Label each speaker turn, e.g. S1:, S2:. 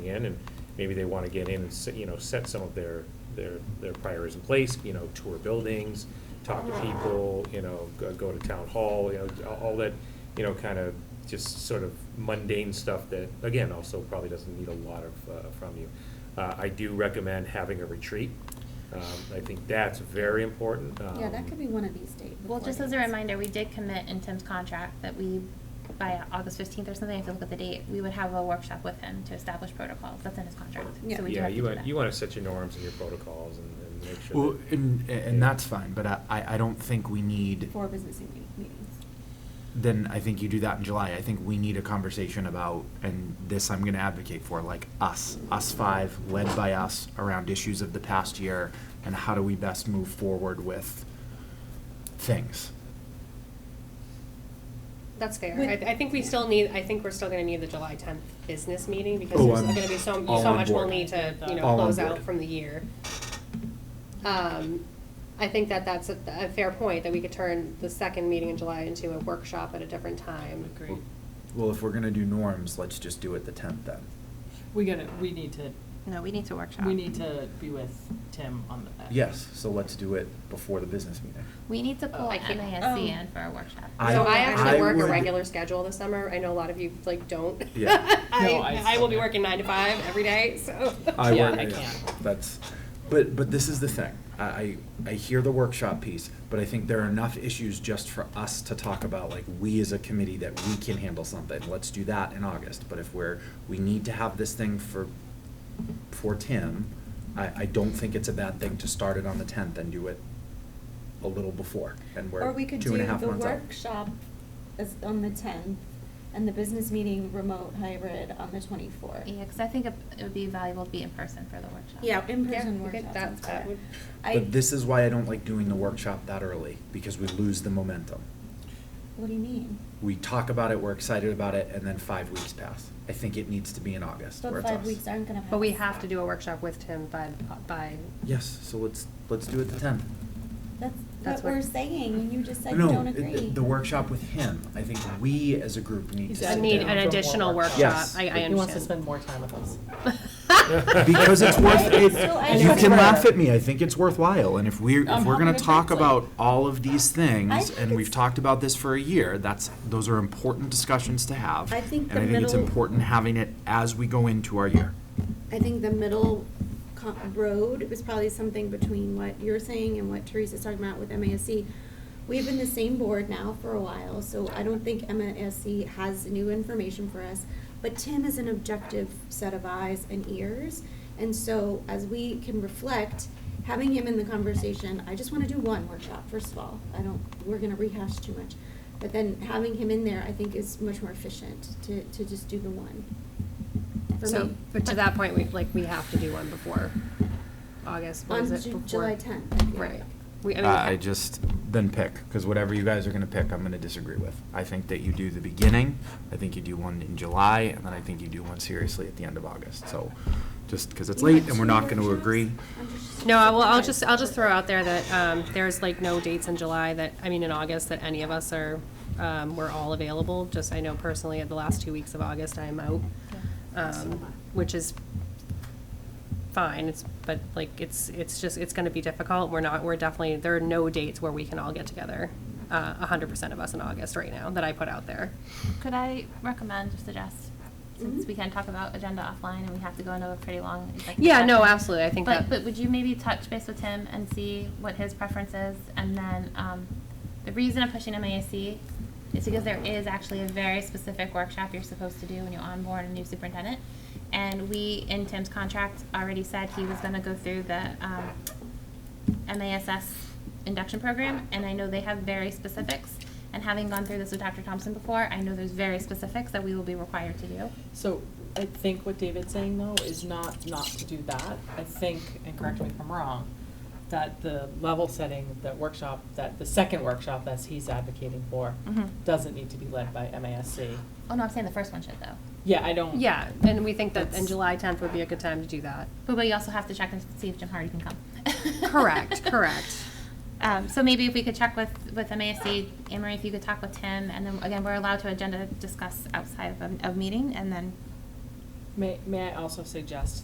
S1: in, and maybe they want to get in and, se- you know, set some of their, their, their priors in place, you know, tour buildings, talk to people, you know, go- go to town hall, you know, all- all that, you know, kind of just sort of mundane stuff that, again, also probably doesn't need a lot of, uh, from you. Uh, I do recommend having a retreat. Um, I think that's very important.
S2: Yeah, that
S1: um,
S2: could be one of these dates.
S3: Well, just as a reminder, we did commit in Tim's contract that we, by August fifteenth or something, if you look at the date, we would have a workshop with him to establish protocols. That's in his contract.
S2: Yeah.
S3: So we do
S1: Yeah,
S3: have to
S1: you
S3: do
S1: want,
S3: that.
S1: you want to set your norms and your protocols and and make sure.
S4: Well,
S1: that-
S4: and, and
S1: Yeah.
S4: that's fine, but I, I I don't think we need,
S2: Four business evening meetings.
S4: then I think you do that in July. I think we need a conversation about, and this I'm gonna advocate for, like us, us five, led by us, around issues of the past year, and how do we best move forward with things.
S5: That's fair.
S2: With-
S5: I, I think we still need, I think we're still gonna need the July tenth business meeting because
S4: Oh,
S5: there's
S4: I'm
S5: gonna be so,
S4: all
S5: so
S4: on
S5: much we'll
S4: board.
S5: need to, you know,
S4: All on
S5: close
S4: board.
S5: out from the year. Um, I think that that's a, a fair point, that we could turn the second meeting in July into a workshop at a different time.
S6: Agreed.
S7: Well, if we're gonna do norms, let's just do it the tenth then.
S6: We gotta, we need to,
S3: No, we need to workshop.
S6: we need to be with Tim on the.
S7: Yes, so let's do it before the business meeting.
S3: We need to pull
S5: I can't-
S3: MASC
S2: um,
S3: in for a workshop.
S4: I-
S5: So I actually
S4: I
S5: work a
S4: would-
S5: regular schedule this summer. I know a lot of you like don't.
S7: Yeah.
S6: No,
S5: I,
S6: I-
S5: I will be working nine to five every day, so.
S7: I
S6: Yeah,
S7: work-
S6: I can't.
S7: That's, but, but this is the thing. I, I, I hear the workshop piece, but I think there are enough issues just for us to talk about, like, we as a committee that we can handle something. Let's do that in August. But if we're, we need to have this thing for, for Tim, I, I don't think it's a bad thing to start it on the tenth and do it a little before. And we're
S2: Or we could
S7: two
S2: do
S7: and a half
S2: the
S7: months out.
S2: workshop as, on the tenth and the business meeting remote hybrid on the twenty-fourth.
S3: Yeah, because I think it it would be valuable to be in person for the workshop.
S2: Yeah,
S5: Yeah, we
S2: in-person
S5: could-
S2: workshop
S5: that-
S2: sounds
S5: that
S2: better.
S5: would-
S2: I-
S7: But this is why I don't like doing the workshop that early, because we lose the momentum.
S2: What do you mean?
S7: We talk about it, we're excited about it, and then five weeks pass. I think it needs to be in August where
S2: But
S7: it's us.
S2: five weeks aren't gonna pass.
S8: But we have to do a workshop with Tim by, by,
S7: Yes, so let's, let's do it the tenth.
S2: That's
S8: That's
S2: what we're
S8: what-
S2: saying, and you just said you
S7: No,
S2: don't
S7: it- the-
S2: agree.
S7: The workshop with him, I think we as a group need to
S6: He's
S7: sit
S6: asking
S7: down.
S8: need
S6: for
S8: an
S6: more
S8: additional workshop,
S7: Yes.
S8: I, I understand.
S6: He wants to spend more time with us.
S7: Because it's worth, it,
S2: So I
S7: you
S2: don't-
S7: can laugh at me, I think it's worthwhile, and if we're, if
S2: I'm
S7: we're gonna
S2: hungry,
S7: talk
S2: like-
S7: about all of these
S2: I
S7: things,
S2: think
S7: and we've
S2: it's-
S7: talked about this for a year, that's, those are important discussions to have.
S9: I think
S7: And
S9: the
S7: I think it's
S9: middle-
S7: important having it as we go into our year.
S9: I think the middle co- road was probably something between what you're saying and what Teresa's talking about with MASC. We've been the same board now for a while, so I don't think MASC has new information for us. But Tim is an objective set of eyes and ears, and so as we can reflect, having him in the conversation, I just wanna do one workshop, first of all. I don't, we're gonna rehash too much. But then having him in there, I think is much more efficient to, to just do the one. For
S8: So,
S9: me.
S8: but to that point, we, like, we have to do one before August, what
S9: On
S8: is it?
S9: Ju-
S8: before-
S9: July 10th.
S8: Right. We, I mean.
S4: Uh, I just, then pick, because whatever you guys are gonna pick, I'm gonna disagree with. I think that you do the beginning, I think you do one in July, and then I think you do one seriously at the end of August, so, just because it's late and we're not gonna agree.
S8: No, I will, I'll just, I'll just throw out there that, um, there's like no dates in July that, I mean, in August, that any of us are, um, we're all available. Just, I know personally, at the last two weeks of August, I am out, um, which is fine, it's, but like, it's, it's just, it's gonna be difficult. We're not, we're definitely, there are no dates where we can all get together, uh, a hundred percent of us in August right now, that I put out there.
S3: Could I recommend or suggest, since
S9: Mhm.
S3: we can talk about agenda offline and we have to go into a pretty long executive
S8: Yeah, no,
S3: session,
S8: absolutely, I think
S3: But,
S8: that.
S3: but would you maybe touch base with him and see what his preference is? And then, um, the reason I'm pushing MASC is because there is actually a very specific workshop you're supposed to do when you onboard a new superintendent. And we, in Tim's contract, already said he was gonna go through the, um, MASS induction program, and I know they have very specifics. And having gone through this with Dr. Thompson before, I know there's very specifics that we will be required to do.
S6: So I think what David's saying though is not, not to do that. I think, and correct me if I'm wrong, that the level setting, that workshop, that the second workshop that he's advocating for
S3: Mhm.
S6: doesn't need to be led by MASC.
S3: Oh, no, I'm saying the first one should though.
S6: Yeah, I don't.
S8: Yeah, and we think that,
S6: That's-
S8: and July tenth would be a good time to do that.
S3: But we also have to check and see if Jim Hardy can come.
S8: Correct, correct.
S3: Um, so maybe if we could check with, with MASC, Amory, if you could talk with Tim, and then again, we're allowed to agenda discuss outside of a, of meeting, and then
S6: May, may I also suggest